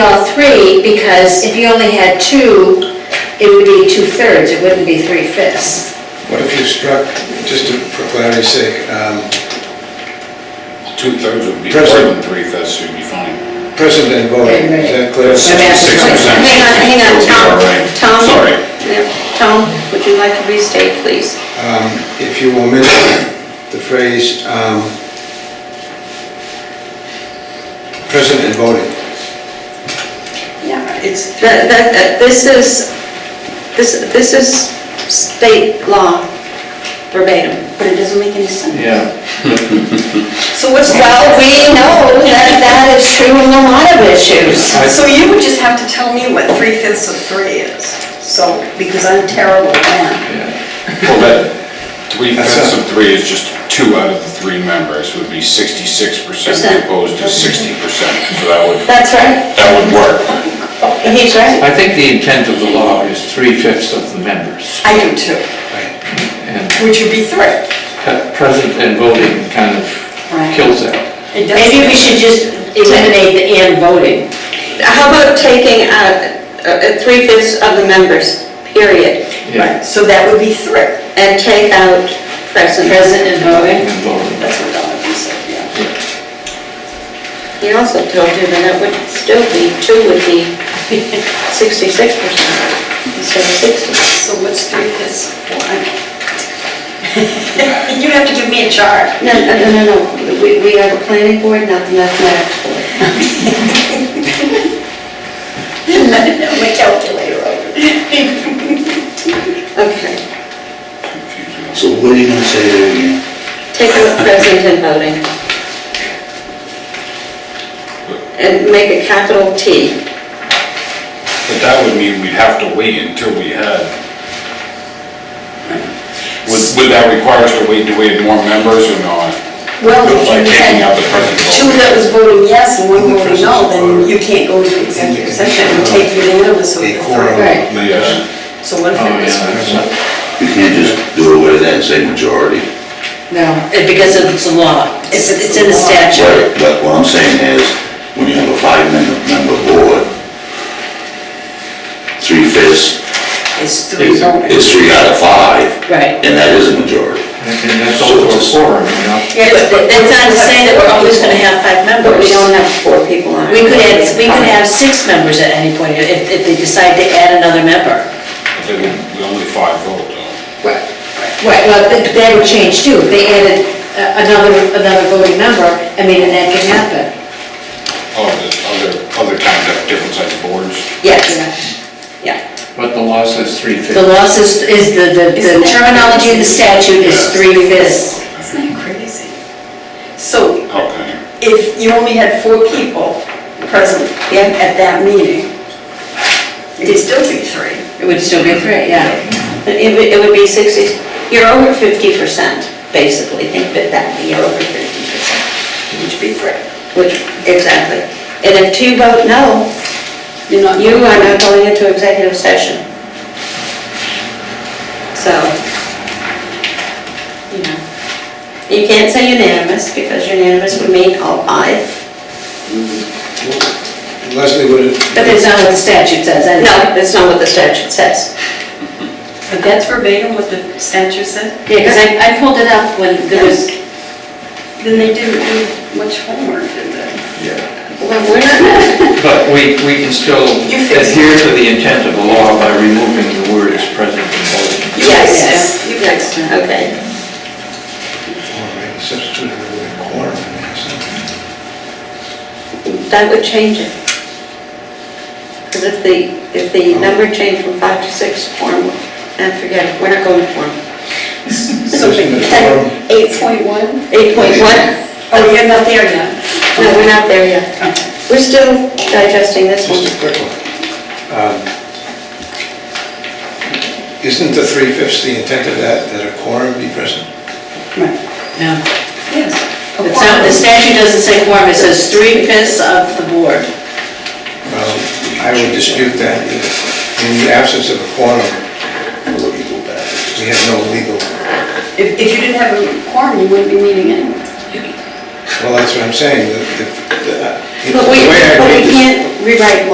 all three, because if you only had two, it would be two-thirds, it wouldn't be three-fifths. What if you struck, just to- for clarity's sake, um, Two-thirds would be more President. than three-fifths, you'd be fine. present and voting, is that clear? But that's- Six percent. Hang on, hang on, Tom, Alright, Tom. sorry. Yeah, Tom, would you like to restate, please? If you omit the phrase, um, present and voting, Yeah, it's. That, that, that- uh, this is, this, this is state law verbatim. But it doesn't make any sense. Yeah. So what's Well, the, we know that that is true in a lot of issues. so you would just have to tell me what three fifths of three is, so, because I'm terrible at math. Well, that three-fifths of three is just two out of the three members would be sixty-six Percent. percent opposed to sixty percent. So that would, That's right, that would work. he's right. I think the intent of the law is three-fifths of the members, I do too, right? and which would be three. cut- present and voting kind of Right. kills that. It doesn't- Maybe we should just eliminate the "and" voting. How about taking out uh, three-fifths of the members, period, Yeah, Right, so that would be three. and take out present? Present and voting. and voting. That's what Donovan said, yeah. He also told you that it would still be, two would be sixty-six percent instead of sixty. So what's three fifths of four? I- You'd have to give me a chart. No, no, no, no, no, we, we are the planning board, not the mathematics board. My calculator over. Okay, So what are you gonna say there again? take out present and voting. And make a capital T. But that would mean we'd have to wait until we had. Would, would that require us to wait to we had more members or not? Well, if Like you taking out had the present two vote? that was voting yes and one voting no, then you can't go to the executive session and take unanimous of A the three. quorum Right. of The, members. uh, So what if Oh, it was? yeah, that's not- You can't just do away with that and say majority. No. eh, Because it's a law. It's, it's in the statute. Right, but what I'm saying is, when you have a five-member member board, three fifths It's three voting. is three out of five, Right. and that is a majority. And and that's also a forum, you know? Yeah, but that- that's not to say that we're always gonna have five But members. we don't have four people on it. We could add, we could have six members at any point if, if they decide to add another member. I think we- we only five vote though. Right, right, well, that that would change too, if they added a- another, another voting member, I mean, and that can happen. Oh, the other, other towns have different size boards. Yes, yeah. But the law says three-fifths. The law is, is the, the the terminology of the statute is three fifths. Isn't that crazy? So Okay. if you only had four people present at at that meeting, it'd still be three. It would still be three, yeah. It would, it would be sixty, you're over fifty percent, basically, think of it that, way, you're over fifty percent. Which be three. Which, exactly. And if two vote no, You're not, you are not going into executive session. So, you know, you can't say unanimous, because unanimous would mean all five. Leslie, would it, But that's not what the statute says, I know. No, that's not what the statute says. but that's verbatim what the statute said? Yeah, because I, I pulled it up when there was, Then they didn't do much homework, did they? Well, we're not, But we, we can still You fix it. adhere to the intent of the law by removing the words present and voting. You Yes. fixed it. You fixed it. okay. all right, substitute it with a quorum. yes. That would change it. Because if the, if Oh. the number changed from five to six, form, and forget it, we're not going to form. So Isn't it a quorum? eight point one? Eight point one, Oh, you're not there yet. no, we're not there yet. We're still digesting this one. Just a quick one. Um, Isn't the three-fifths the intent of that, that a quorum be present? no. Yes. It's not, the statute doesn't say quorum, it says three fifths of the board. Well, I would dispute that. In the absence of a quorum, we have no legal, If, if you didn't have a quorum, you wouldn't be meeting anyway. well, that's what I'm saying. The- the- the- But we, the way I but read we this- can't rewrite